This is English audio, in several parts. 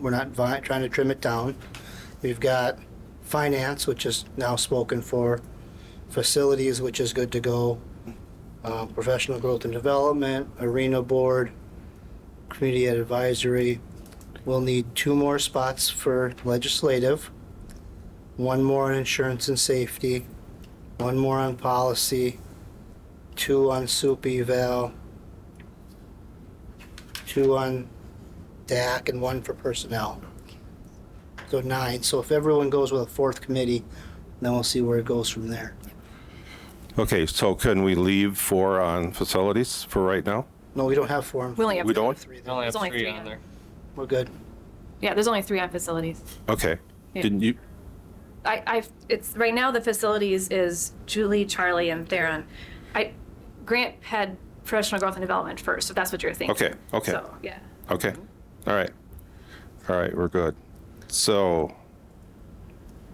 We're not vi- trying to trim it down. We've got finance, which is now spoken for, facilities, which is good to go, uh, professional growth and development, arena board, community advisory. We'll need two more spots for legislative, one more on insurance and safety, one more on policy, two on soup eval, two on DAC, and one for personnel. So nine. So if everyone goes with a fourth committee, then we'll see where it goes from there. Okay, so can we leave four on facilities for right now? No, we don't have four. and We only have We don't? Three, I only have There's only three three on on there. We're good. Yeah, there's only three on facilities. Okay. Yeah. Didn't you, I, I, it's, right now, the facilities is Julie, Charlie, and Theron. I, Grant had professional growth and development first, if that's what you're thinking. Okay, okay. So, yeah. okay, all right. All right, we're good. So,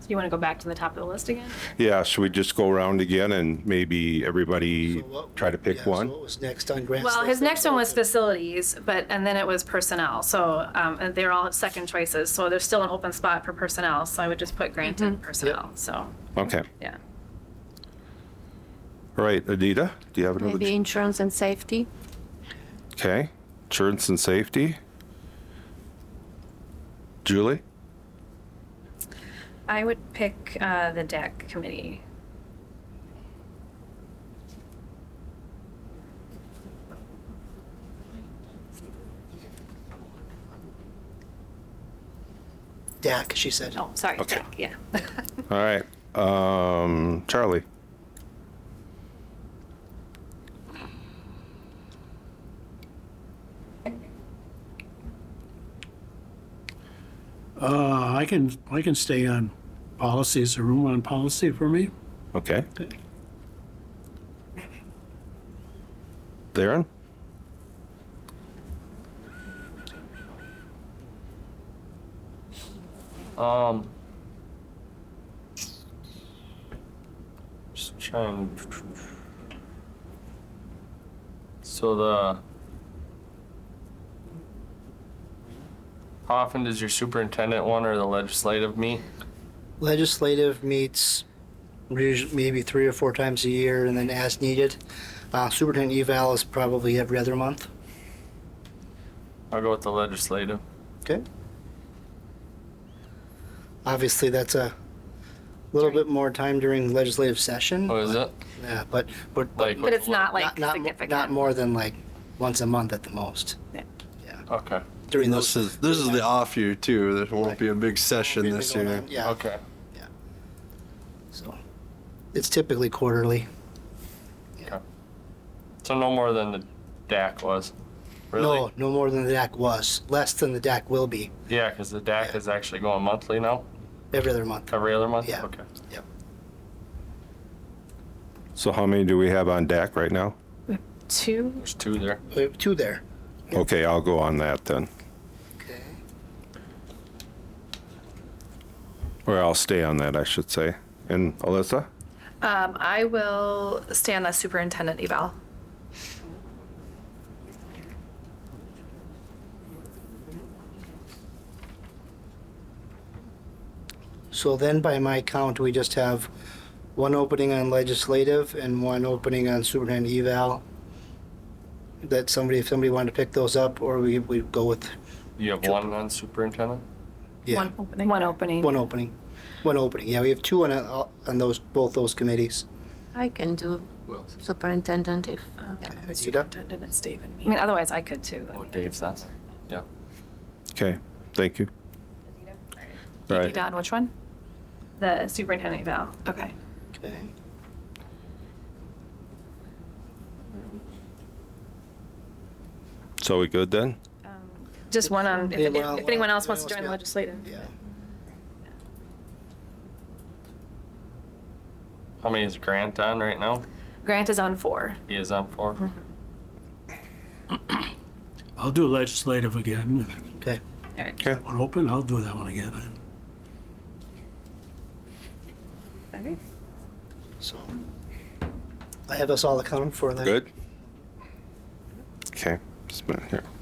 So you want to go back to the top of the list again? yeah, should we just go around again and maybe So everybody what- try to yeah, pick so one? what was next on Grant's? Well, list? his next one was facilities, but, and then it was personnel. So, um, and they're all second choices. So there's still an open spot for personnel. So I would just put Grant in personnel. So, Okay, yeah. all right, Adita, do you have another? Maybe insurance and safety. Okay, insurance and safety? Julie? I would pick, uh, the DAC committee. DAC, she said. Oh, sorry. Okay. Uh, DAC, Yeah. All right, um, Charlie? Uh, I can, I can stay on policy. Is there room on policy for me? Okay. Darren? Um. Just trying. So the. How often does your superintendent one or the legislative meet? Legislative meets usu- maybe three or four times a year and then as needed. Uh, Superintendent eval is probably every other month. I'll go with the legislative. Okay. Obviously, that's a little bit more time during legislative session. Oh, What Oh, is it? Yeah, but, but, but Like. But it's not like not, not, mo- significant. not more than like once a month at the most Okay. during This those. is this is the off year too. There won't be a big session this year. Yeah, Okay. so it's typically quarterly. So no more than the DAC was. Really? No, no more than the DAC was, less than the DAC will be Yeah, because the DAC is actually going monthly now, every other month. every other month. Yeah. Okay. So how many do we have on DAC right now? Two? There's two there. We have Uh, two there. Okay, I'll go on that then, Okay. or I'll stay on that, I should say. And Alyssa? Um, I will stay on the superintendent eval. So then by my count, we just have one opening on legislative and one opening on superintendent eval. That somebody, if somebody wanted to pick those up, or we, we go with You have one on superintendent? Yeah. One opening. One opening. one opening. One opening, yeah, we have two on, uh, on those, both those committees. I can do superintendent if. uh, Rita? Superintendent, it's Dave and I mean, otherwise I could too. Oh, Dave's not. Yeah. Okay, thank you. All You right, done which one? The superintendent eval. Okay. Okay. so we good then? Um, Just one on, if, Anyone if- else- if anyone else wants anyone to join the else legislative. Yeah. How many is Grant on right now? Grant is on four. He is on four. I'll do legislative again. If Okay, Okay, that one open, I'll do that one again. so I have us all accounted for then. good? Okay, just a minute here.